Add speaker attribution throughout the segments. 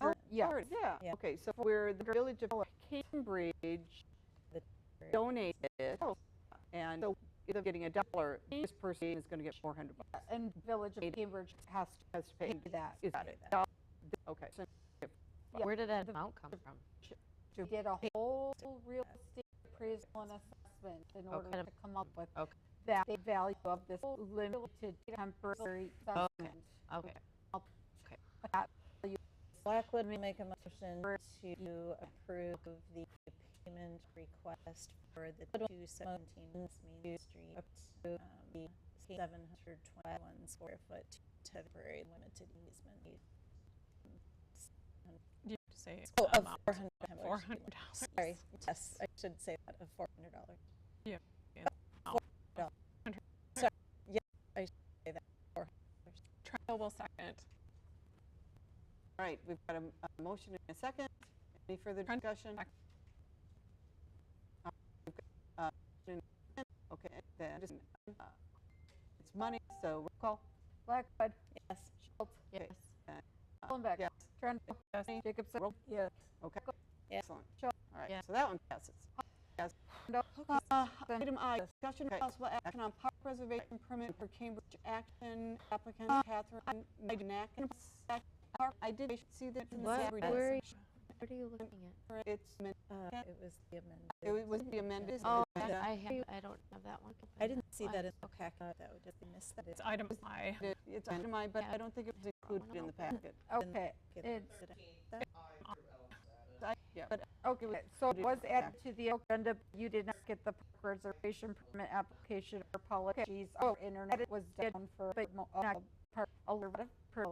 Speaker 1: Oh, Yeah, yeah.
Speaker 2: Yeah.
Speaker 1: Okay, so where the village of Cambridge
Speaker 2: The-
Speaker 1: donated, and so instead of getting a dollar, this person is going to get 400 bucks.
Speaker 3: And Village of Cambridge has to
Speaker 1: Has to pay.
Speaker 3: do that.
Speaker 1: Is that
Speaker 2: pay
Speaker 1: it?
Speaker 2: that.
Speaker 1: Dollar- Okay. so-
Speaker 3: Yeah.
Speaker 4: Where did that amount come from?
Speaker 3: to did a whole real estate appraisal and assessment in
Speaker 1: Oh,
Speaker 3: order
Speaker 4: kind
Speaker 3: to
Speaker 4: of-
Speaker 3: come up with
Speaker 4: okay.
Speaker 3: that the value of this limited temporary
Speaker 1: Oh,
Speaker 3: assessment.
Speaker 4: Okay.
Speaker 3: That value
Speaker 2: Blackwood may make a motion to approve the payment request for the 217 Mead Street, approve um, the 721 square foot temporary limited easement.
Speaker 5: Do you have to say um,
Speaker 2: Oh,
Speaker 5: the
Speaker 2: of
Speaker 5: amount?
Speaker 2: $400.
Speaker 5: Four hundred dollars.
Speaker 2: Sorry, yes, I should say that, of $400.
Speaker 5: Yeah, yeah.
Speaker 2: Uh, $400.
Speaker 5: Hundred.
Speaker 2: Sorry, yeah, I should say that, $400.
Speaker 5: Trial will second.
Speaker 1: All right, we've got a m- a motion and a second. Any further
Speaker 5: Trying to
Speaker 1: discussion?
Speaker 5: back-
Speaker 1: Uh, we've got, uh, motion and a second. Okay, then, just, uh, it's money, so roll call.
Speaker 3: Blackwood,
Speaker 2: Yes,
Speaker 3: Schultz,
Speaker 4: Yes.
Speaker 3: Hollenbeck,
Speaker 1: Yes,
Speaker 3: Trent,
Speaker 1: Yes.
Speaker 3: Jacobson.
Speaker 1: Roll.
Speaker 3: Yes.
Speaker 1: okay.
Speaker 2: Yeah.
Speaker 1: Excellent.
Speaker 3: Sure.
Speaker 1: All right,
Speaker 4: Yeah.
Speaker 1: so that one passes. Yes.
Speaker 3: No.
Speaker 1: Uh,
Speaker 3: Then-
Speaker 1: Item I, discussion of possible action on park preservation permit for Cambridge Action applicant Catherine Magnac. Park, I did see that. in the
Speaker 4: What?
Speaker 1: Saturday
Speaker 4: Where are you-
Speaker 1: session.
Speaker 4: What are you looking at?
Speaker 1: It's, amended.
Speaker 2: uh,
Speaker 1: Yeah.
Speaker 2: it was the amended.
Speaker 1: it was- was the amended.
Speaker 4: Oh,
Speaker 1: agenda.
Speaker 4: that's- I have, I don't have that one. open.
Speaker 2: I didn't see
Speaker 4: Why?
Speaker 2: that in the packet, though, did I miss that?
Speaker 5: It's item I.
Speaker 1: It- It's under my, but I don't think it was included in the packet.
Speaker 3: Okay,
Speaker 2: Okay,
Speaker 3: it's-
Speaker 2: did I-
Speaker 1: I- Yeah, but
Speaker 3: okay, so it was added to the agenda, but you did not get the reservation permit application or apologies. Our internet was down for, but mo- uh, part- a lot of, per-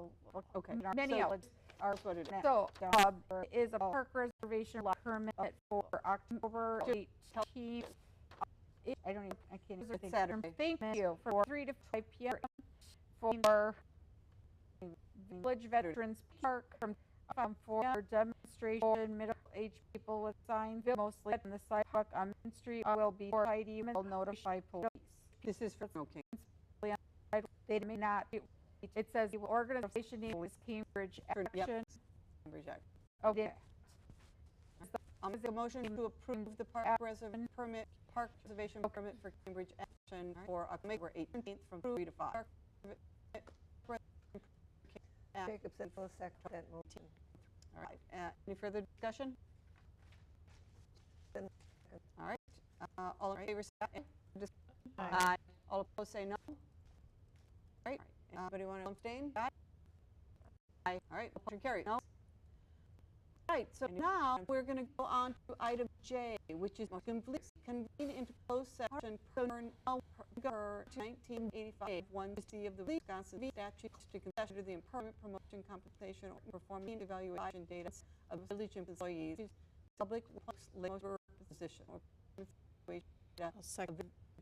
Speaker 1: Okay,
Speaker 3: many
Speaker 1: so-
Speaker 3: outlets are
Speaker 1: that's what it is.
Speaker 3: So, uh, there is a park reservation lot permit for October eighteenth. I don't even, I can't even
Speaker 1: It's
Speaker 3: think. Um,
Speaker 1: Saturday.
Speaker 3: Thank you for three to five P M for Village Veterans Park from, from four for demonstration, middle-aged people with signs, mostly on the sidewalk on Main Street uh, will be for ID, will notify police.
Speaker 1: This is for Snow King.
Speaker 3: They may not, be- it says the organization name is Cambridge
Speaker 1: For- yep.
Speaker 3: Action.
Speaker 1: Cambridge Um, Action.
Speaker 3: Okay.
Speaker 1: I'll make the motion to approve the park reservation permit, park reservation permit for Cambridge Action for October 18th from 3 to 5. Park reservation permit for Cambridge Action.
Speaker 6: Jacobson will second that motion.
Speaker 1: All right, uh, any further discussion?
Speaker 6: Then-
Speaker 1: All right, uh, all in favor, say aye. Dis-
Speaker 5: Aye.
Speaker 1: Aye. All opposed, say no. All right, uh, anybody want to abstain? Aye. Aye, all right, motion carried. No? All right, so now we're going to go on to item J, which is motion please convene into closed session per now per 1985, one C of the Wisconsin statute to consider the employment promotion compensation or performance evaluation data of village employees, public works labor position or evaluation data
Speaker 2: I'll second
Speaker 1: of